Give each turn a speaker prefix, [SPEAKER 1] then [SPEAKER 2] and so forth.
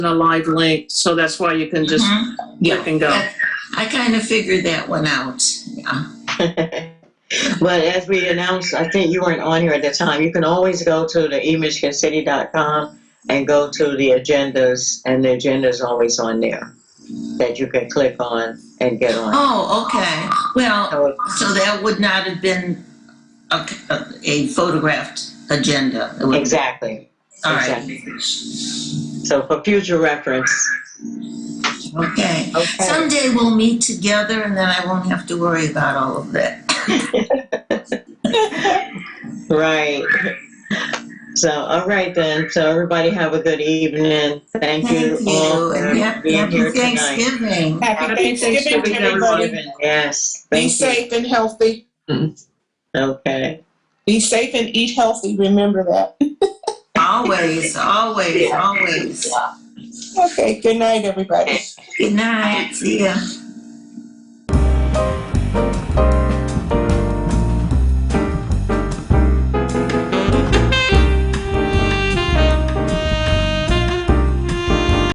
[SPEAKER 1] a live link, so that's why you can just
[SPEAKER 2] Mhm.
[SPEAKER 1] click and go.
[SPEAKER 2] That- I kind of figured that one out. Yeah.
[SPEAKER 3] but as we announced, I think you weren't on here at the time. You can always go to the e emichigancity.com and go to the agendas, and the agenda is always on there that you can click on and get on.
[SPEAKER 2] Oh, okay. Well,
[SPEAKER 3] So
[SPEAKER 2] so that would not have been a, a photographed agenda. It would-
[SPEAKER 3] exactly.
[SPEAKER 2] All right.
[SPEAKER 3] exactly. So for future reference.
[SPEAKER 2] Okay.
[SPEAKER 3] Okay.
[SPEAKER 2] Someday we'll meet together and then I won't have to worry about all of that.
[SPEAKER 3] Right. So all right then. So everybody have a good evening. Thank,
[SPEAKER 2] Thank
[SPEAKER 3] all
[SPEAKER 2] you.
[SPEAKER 3] for
[SPEAKER 2] And happy,
[SPEAKER 3] being
[SPEAKER 2] happy
[SPEAKER 3] here
[SPEAKER 2] Thanksgiving.
[SPEAKER 4] Happy Thanksgiving to everybody.
[SPEAKER 3] tonight. Yes. Thank
[SPEAKER 4] Be
[SPEAKER 3] you.
[SPEAKER 4] safe and healthy.
[SPEAKER 3] Okay.
[SPEAKER 4] Be safe and eat healthy. Remember that.
[SPEAKER 2] Always, always, always.
[SPEAKER 4] Okay, good night, everybody.
[SPEAKER 2] Good night. See ya.